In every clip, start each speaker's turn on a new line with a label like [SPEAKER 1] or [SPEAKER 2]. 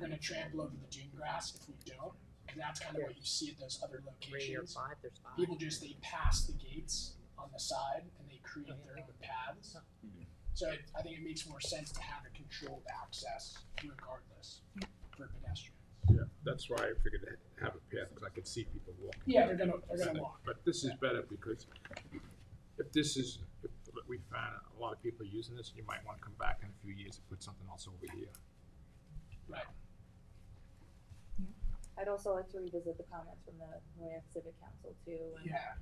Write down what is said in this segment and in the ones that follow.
[SPEAKER 1] gonna trample over the dune grass if we don't, and that's kind of what you see at those other
[SPEAKER 2] three or
[SPEAKER 1] locations.
[SPEAKER 2] five, there's five.
[SPEAKER 1] People just they pass the gates on the side and they create their own paths. So it, I think it makes more sense to have a controlled access regardless for pedestrians.
[SPEAKER 3] Yeah, that's why I figured to have a path, because I could see people walking.
[SPEAKER 1] Yeah, they're gonna they're gonna
[SPEAKER 3] But-
[SPEAKER 1] walk.
[SPEAKER 3] But this is better because if this is, if we find a lot of people using this, you might want to come back in a few years and put something else over here.
[SPEAKER 1] Right.
[SPEAKER 4] I'd also like to revisit the comments from the Noyak Civic Council too. and-
[SPEAKER 1] Yeah.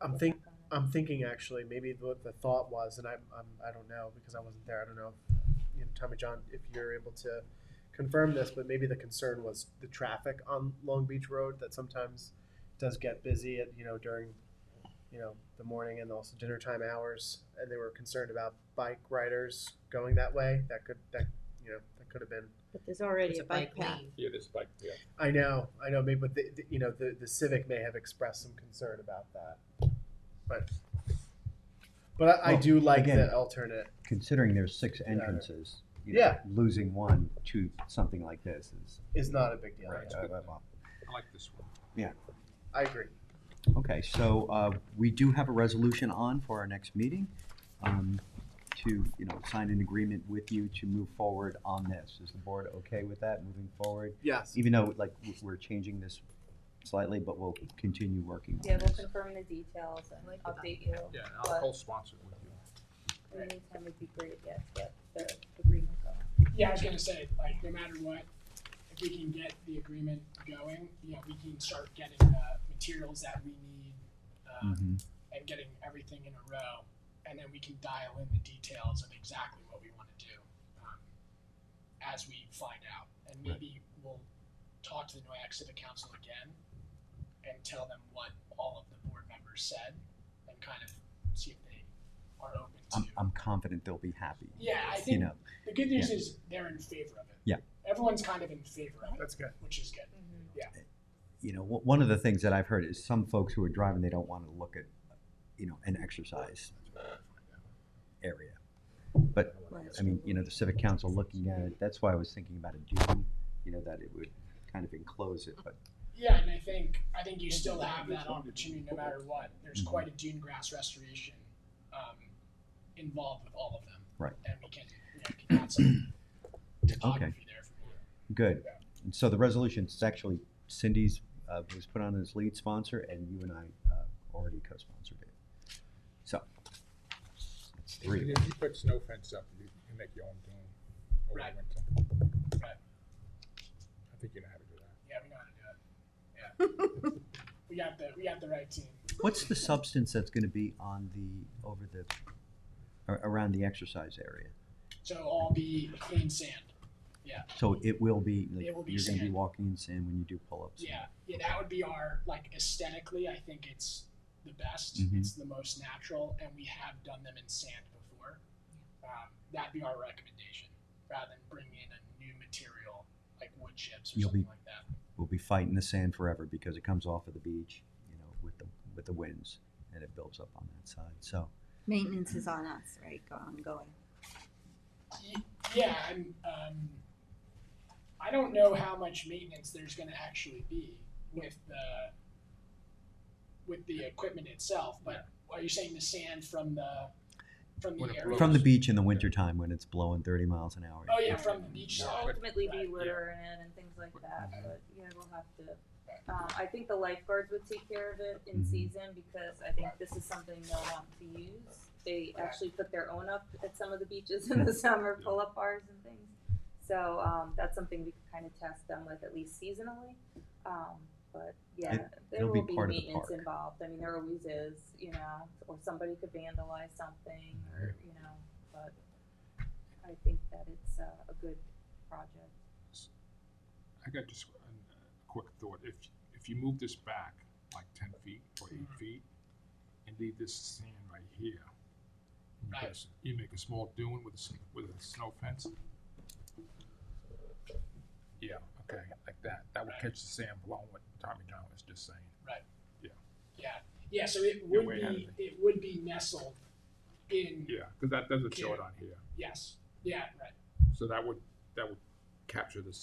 [SPEAKER 5] I'm think I'm thinking actually maybe what the thought was, and I'm, I'm I don't know because I wasn't there. I don't know, if, you know, Tommy John, if you're able to confirm this, but maybe the concern was the traffic on Long Beach Road that sometimes does get busy at you know during you know the morning and also dinner time hours, and they were concerned about bike riders going that way. That could that you know that could have been
[SPEAKER 6] But there's already
[SPEAKER 2] It's
[SPEAKER 6] a bike path.
[SPEAKER 2] lane.
[SPEAKER 3] Yeah, this bike path.
[SPEAKER 5] I know, I know, maybe, but the, the- you know, the, the civic may have expressed some concern about that, but. But I, I
[SPEAKER 7] Well,
[SPEAKER 5] do like
[SPEAKER 7] again-
[SPEAKER 5] the alternate,
[SPEAKER 7] Considering there's six
[SPEAKER 5] Yeah.
[SPEAKER 7] entrances, you know,
[SPEAKER 5] Yeah.
[SPEAKER 7] losing one to something like this is.
[SPEAKER 5] is not a big deal,
[SPEAKER 7] Right, uh, well,
[SPEAKER 3] I like this one.
[SPEAKER 5] I agree.
[SPEAKER 7] Okay, so, uh, we do have a resolution on for our next meeting, um, to, you know, sign an agreement with you to move forward on this. Is the board okay with that, moving forward?
[SPEAKER 5] Yes.
[SPEAKER 7] Even though, like, w- we're changing this slightly, but we'll continue working on
[SPEAKER 4] Yeah, we'll
[SPEAKER 7] this.
[SPEAKER 4] confirm the details and
[SPEAKER 2] Like the
[SPEAKER 4] update you.
[SPEAKER 3] Yeah, and I'll co-sponsor it with you.
[SPEAKER 4] In the meantime, it'd be great, yes, but the agreement going.
[SPEAKER 1] Yeah, I was gonna say, like, no matter what, if we can get the agreement going, you know, we can start getting the materials that we need, uh,
[SPEAKER 7] Mhm.
[SPEAKER 1] and getting everything in a row, and then we can dial in the details of exactly what we wanna do, um, as we find out, and maybe we'll talk to the Noyak Civic Council again and tell them what all of the board members said, and kind of see if they are open to.
[SPEAKER 7] I'm, I'm confident they'll be happy,
[SPEAKER 1] Yeah, I
[SPEAKER 7] you
[SPEAKER 1] think
[SPEAKER 7] know,
[SPEAKER 1] the good news is they're in favor of it.
[SPEAKER 7] Yeah.
[SPEAKER 1] Everyone's kind of in favor of it,
[SPEAKER 5] That's good.
[SPEAKER 1] which is good.
[SPEAKER 7] you know, w- one of the things that I've heard is some folks who are driving, they don't want to look at, you know, an exercise area. But, I mean, you know, the civic council looking at it, that's why I was thinking about a dune, you know, that it would kind of enclose it, but
[SPEAKER 1] Yeah, and I think I think you still have that opportunity no matter what. There's quite a dune grass restoration um, involved with all of them.
[SPEAKER 7] Right.
[SPEAKER 1] And we can you know, can add some topography there for you.
[SPEAKER 7] good. And so the resolution is actually Cindy's, uh, was put on as lead sponsor and you and I, uh, already co-sponsored it. So, that's three.
[SPEAKER 3] If you put snow fence up, you can make your own dune over
[SPEAKER 1] Right.
[SPEAKER 3] the winter.
[SPEAKER 1] Right.
[SPEAKER 3] I think you know how to do that.
[SPEAKER 1] Yeah, we know how to do it. Yeah. we got the we got the right team.
[SPEAKER 7] What's the substance that's gonna be on the, over the, a- around the exercise area?
[SPEAKER 1] So all be clean sand.
[SPEAKER 7] So it will be, like,
[SPEAKER 1] It will be
[SPEAKER 7] you're gonna be
[SPEAKER 1] sand.
[SPEAKER 7] walking in sand when you do pull-ups?
[SPEAKER 1] Yeah, yeah, that would be our like aesthetically. I think it's the best.
[SPEAKER 7] Mhm.
[SPEAKER 1] It's the most natural, and we have done them in sand before. Um, that'd be our recommendation, rather than bringing in a new material like wood chips or
[SPEAKER 7] You'll
[SPEAKER 1] something
[SPEAKER 7] be-
[SPEAKER 1] like that.
[SPEAKER 7] We'll be fighting the sand forever because it comes off of the beach, you know, with the, with the winds, and it builds up on that side, so.
[SPEAKER 6] Maintenance is on us, right, go- ongoing.
[SPEAKER 1] Y- Yeah, and um, I don't know how much maintenance there's going to actually be with the with the equipment itself. But are you saying the sand from the from the
[SPEAKER 3] When it
[SPEAKER 1] area?
[SPEAKER 7] From the
[SPEAKER 3] Blows.
[SPEAKER 7] beach in the wintertime when it's blowing thirty miles an hour.
[SPEAKER 1] Oh yeah, from the beach
[SPEAKER 3] No,
[SPEAKER 1] side.
[SPEAKER 3] but-
[SPEAKER 4] Ultimately
[SPEAKER 1] Right,
[SPEAKER 4] be
[SPEAKER 1] yeah. Mm-hmm.
[SPEAKER 4] litter in it and things like that, but yeah, we'll have to. Um, I think the lifeguards would take care of it in
[SPEAKER 1] Mm-hmm.
[SPEAKER 7] Mhm.
[SPEAKER 4] season because I think this is something they'll want to use. They actually put their own up at some of the beaches in the summer,
[SPEAKER 3] Yeah.
[SPEAKER 4] pull-up bars and things. So, um, that's something we could kind of test them with at least seasonally. Um, but yeah,
[SPEAKER 7] It-
[SPEAKER 4] there
[SPEAKER 7] it'll
[SPEAKER 4] will
[SPEAKER 7] be
[SPEAKER 4] be
[SPEAKER 7] part of the
[SPEAKER 4] maintenance
[SPEAKER 7] park.
[SPEAKER 4] involved. I mean, there always is, you know, or somebody could vandalize something or, you know, but I think that it's uh, a good project.
[SPEAKER 3] I got just a a quick thought. If, if you move this back like ten feet or eight
[SPEAKER 1] Mhm.
[SPEAKER 3] feet and leave this sand right here. and you put a
[SPEAKER 1] Right.
[SPEAKER 3] s- You make a small dune with a, s- with a snow fence. Yeah, okay, like that. That would
[SPEAKER 1] Right.
[SPEAKER 3] catch the sand blowing what Tommy John was just saying.
[SPEAKER 1] Yeah, yeah, so it
[SPEAKER 3] You're
[SPEAKER 1] would
[SPEAKER 3] way ahead of
[SPEAKER 1] be, it would be nestled in,
[SPEAKER 3] Yeah, because that doesn't show it on here.
[SPEAKER 1] yes, yeah, right.
[SPEAKER 3] So that would, that would capture the